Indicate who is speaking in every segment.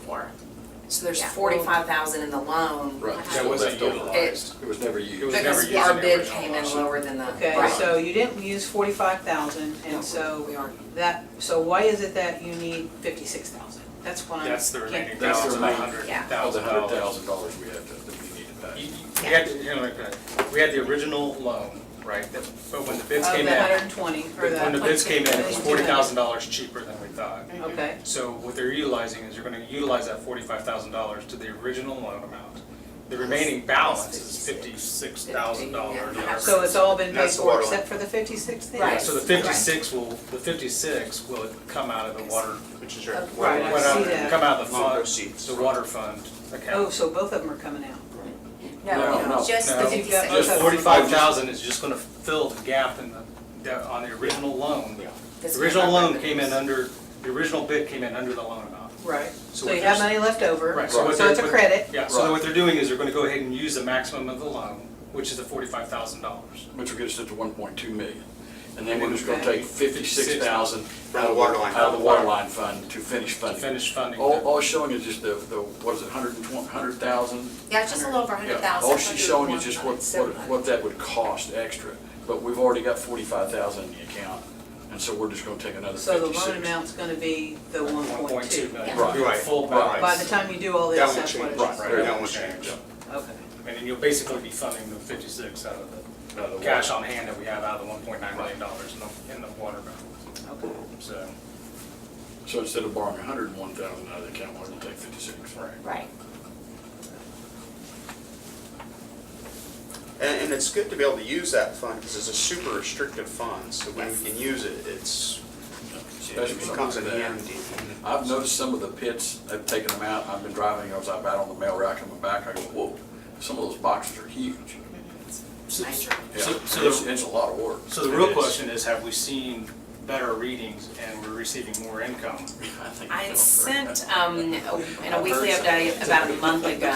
Speaker 1: for. So there's
Speaker 2: Yeah.
Speaker 1: forty-five thousand in the loan.
Speaker 3: Right,
Speaker 2: That
Speaker 3: that wasn't
Speaker 4: wasn't
Speaker 3: utilized, it was never used.
Speaker 4: It was never
Speaker 1: Because
Speaker 4: used
Speaker 1: our
Speaker 4: in the
Speaker 1: bid
Speaker 4: original
Speaker 1: came in
Speaker 4: lawsuit.
Speaker 1: lower than the.
Speaker 5: Okay,
Speaker 1: Right.
Speaker 5: so you didn't use forty-five thousand, and so
Speaker 1: We are.
Speaker 5: that, so why is it that you need fifty-six thousand? That's what I'm.
Speaker 4: That's the remaining
Speaker 5: can't-
Speaker 3: That's the
Speaker 4: thousand, a
Speaker 3: remaining-
Speaker 4: hundred
Speaker 2: Yeah.
Speaker 3: Of the
Speaker 4: thousand
Speaker 3: hundred
Speaker 4: dollars.
Speaker 3: thousand dollars we had to, that we need to pay.
Speaker 4: You- you- We had, to- you know, like, uh, we had the original loan, right, that, but when the bids came
Speaker 5: Of Oh, the
Speaker 4: in,
Speaker 5: hundred and twenty, or the.
Speaker 4: when the bids came in, it was
Speaker 5: 22.
Speaker 4: forty thousand dollars cheaper than we thought.
Speaker 5: Okay,
Speaker 4: So what they're utilizing is you're gonna utilize that forty-five thousand dollars to the original loan amount. The remaining balance is fifty-six thousand dollars.
Speaker 1: Yeah.
Speaker 5: so it's all been paid
Speaker 6: That's the
Speaker 5: for
Speaker 6: water
Speaker 5: except for the fifty-six then?
Speaker 1: Right.
Speaker 4: So the fifty-six will, the fifty-six will come out of the water,
Speaker 6: Which is your.
Speaker 5: Right, I
Speaker 4: went out-
Speaker 5: see that.
Speaker 4: come out of the
Speaker 6: Loan
Speaker 4: fund,
Speaker 6: proceeds.
Speaker 4: the water fund account.
Speaker 5: Oh, so both of them are coming out.
Speaker 3: No, no,
Speaker 2: No, just the
Speaker 4: no.
Speaker 5: You've got
Speaker 2: fifty-six.
Speaker 5: both
Speaker 4: Just
Speaker 5: of them.
Speaker 4: forty-five thousand is just gonna fill the gap in the, the- on the original loan.
Speaker 3: Yeah.
Speaker 1: This
Speaker 4: The
Speaker 1: is
Speaker 4: original
Speaker 1: our
Speaker 4: loan
Speaker 1: revenues.
Speaker 4: came in under, the original bid came in under the loan amount.
Speaker 5: Right,
Speaker 4: So
Speaker 5: so you
Speaker 4: what
Speaker 5: have
Speaker 4: there's-
Speaker 5: money left over,
Speaker 4: Right, so what
Speaker 5: so
Speaker 4: they're-
Speaker 5: it's a
Speaker 4: what-
Speaker 5: credit,
Speaker 4: Yeah, so
Speaker 3: Right.
Speaker 4: what they're doing is they're gonna go ahead and use the maximum of the loan, which is the forty-five thousand dollars.
Speaker 3: Which will get us up to one point two million. And then we're just gonna
Speaker 5: Okay.
Speaker 3: take fifty-six thousand.
Speaker 6: Out of the water line.
Speaker 3: Out of the water line fund to finish
Speaker 4: To
Speaker 3: funding.
Speaker 4: finish funding.
Speaker 3: All,
Speaker 4: the-
Speaker 3: all showing is just the, the, what is it, hundred and twenty, hundred thousand?
Speaker 2: Yeah, just a little over a hundred
Speaker 3: Yeah,
Speaker 2: thousand.
Speaker 3: all she's showing is just what, what,
Speaker 1: 101,700.
Speaker 3: what that would cost extra, but we've already got forty-five thousand in the account, and so we're just gonna take another
Speaker 5: so the
Speaker 3: fifty-six.
Speaker 5: loan amount's gonna be the one
Speaker 4: One point two million.
Speaker 3: Right.
Speaker 4: Your Full
Speaker 3: Right.
Speaker 5: By
Speaker 4: balance.
Speaker 5: the time you do all
Speaker 6: That
Speaker 5: this,
Speaker 6: won't
Speaker 5: that's what
Speaker 6: change,
Speaker 5: it
Speaker 6: right,
Speaker 5: is.
Speaker 6: that won't change.
Speaker 5: Okay,
Speaker 4: And then you'll basically be funding the fifty-six out of
Speaker 3: Out of the
Speaker 4: the cash on hand that we have out of the one point nine million dollars in the, in the water balance,
Speaker 5: okay.
Speaker 4: so.
Speaker 3: So instead of borrowing hundred and one thousand out of the account, we're gonna take fifty-six. Right.
Speaker 2: Right.
Speaker 6: And, and it's good to be able to use that fund, because it's a super restricted fund, so when we can use it, it's,
Speaker 3: Especially
Speaker 6: it comes in
Speaker 3: something like that.
Speaker 6: handy.
Speaker 3: I've noticed some of the pits, they've taken them out, I've been driving, I was out on the mail rack, coming back, I go, whoa, some of those boxes are huge.
Speaker 1: Major.
Speaker 3: Yeah,
Speaker 4: So- so-
Speaker 3: it's, it's a lot of work.
Speaker 4: So the real question is, have we seen better readings and we're receiving more income?
Speaker 1: I sent, um, in a weekly update about a month ago,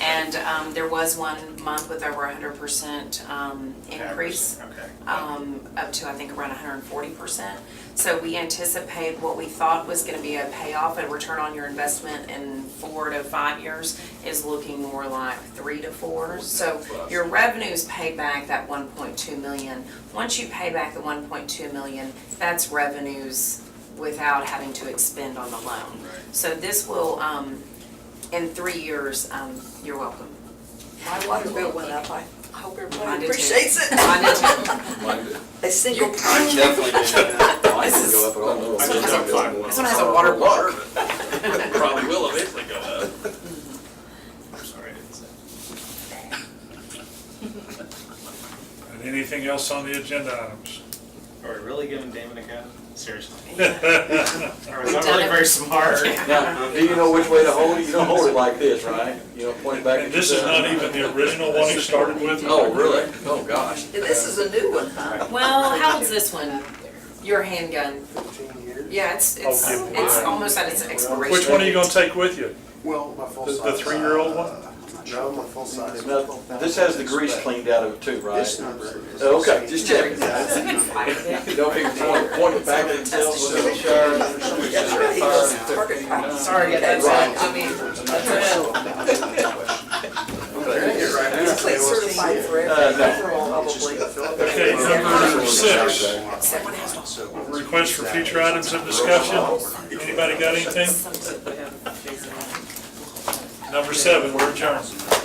Speaker 1: and, um, there was one month with over a hundred percent, um, increase.
Speaker 4: Okay.
Speaker 1: um, up to, I think, around hundred and forty percent. So we anticipate what we thought was gonna be a payoff, a return on your investment in four to five years is looking more like three to four. So your revenues pay back that one point two million. Once you pay back the one point two million, that's revenues without having to expend on the loan. So this will, um, in three years, um, you're welcome.
Speaker 7: My water bill went up, I hope
Speaker 1: Mine did
Speaker 7: everybody
Speaker 1: too.
Speaker 7: appreciates it.
Speaker 1: I did too.
Speaker 3: Mine did,
Speaker 7: A single
Speaker 6: I
Speaker 7: penny.
Speaker 6: definitely did that.
Speaker 3: mine did go up at all.
Speaker 4: I just got five
Speaker 1: This one has a water block.
Speaker 3: Probably will eventually go up.
Speaker 4: I'm sorry, I didn't say.
Speaker 8: And anything else on the agenda items?
Speaker 4: Are we really giving Damon a gun? Seriously? Or
Speaker 1: We've
Speaker 4: is that
Speaker 1: done
Speaker 4: really
Speaker 1: it.
Speaker 4: very smart?
Speaker 3: Now, do you know which way to hold it? You don't hold it like this, right? You don't point it back.
Speaker 8: And
Speaker 3: at
Speaker 8: this is
Speaker 3: yourself.
Speaker 8: not even the original one he started with?
Speaker 3: Oh, really? Oh, gosh.
Speaker 7: This is a new one, huh?
Speaker 1: Well, how old's this one? Your handgun?
Speaker 6: Fifteen years.
Speaker 1: Yeah, it's, it's,
Speaker 8: Oh, good
Speaker 1: it's
Speaker 8: lord.
Speaker 1: almost at its expiration.
Speaker 8: Which one are you gonna take with you?
Speaker 6: Well, my full uh,
Speaker 8: The- the three-year-old one?
Speaker 6: No, my full size.
Speaker 3: Now, This has the grease cleaned out of it too, right?
Speaker 6: This number is.
Speaker 3: Oh, okay, just checking.
Speaker 1: It's a good fight.
Speaker 3: Don't even point, point it back at themselves with a shirt.
Speaker 7: That's right, it's a target practice.
Speaker 5: Sorry,
Speaker 7: That's
Speaker 3: Right.
Speaker 7: right, I mean, it's clean certified for
Speaker 3: Uh, no.
Speaker 7: everyone, probably.
Speaker 8: Okay, number six,
Speaker 1: Someone has to-
Speaker 8: request for future items of discussion. Anybody got anything?
Speaker 1: Something we have to figure out.
Speaker 8: Number seven, we're adjourned.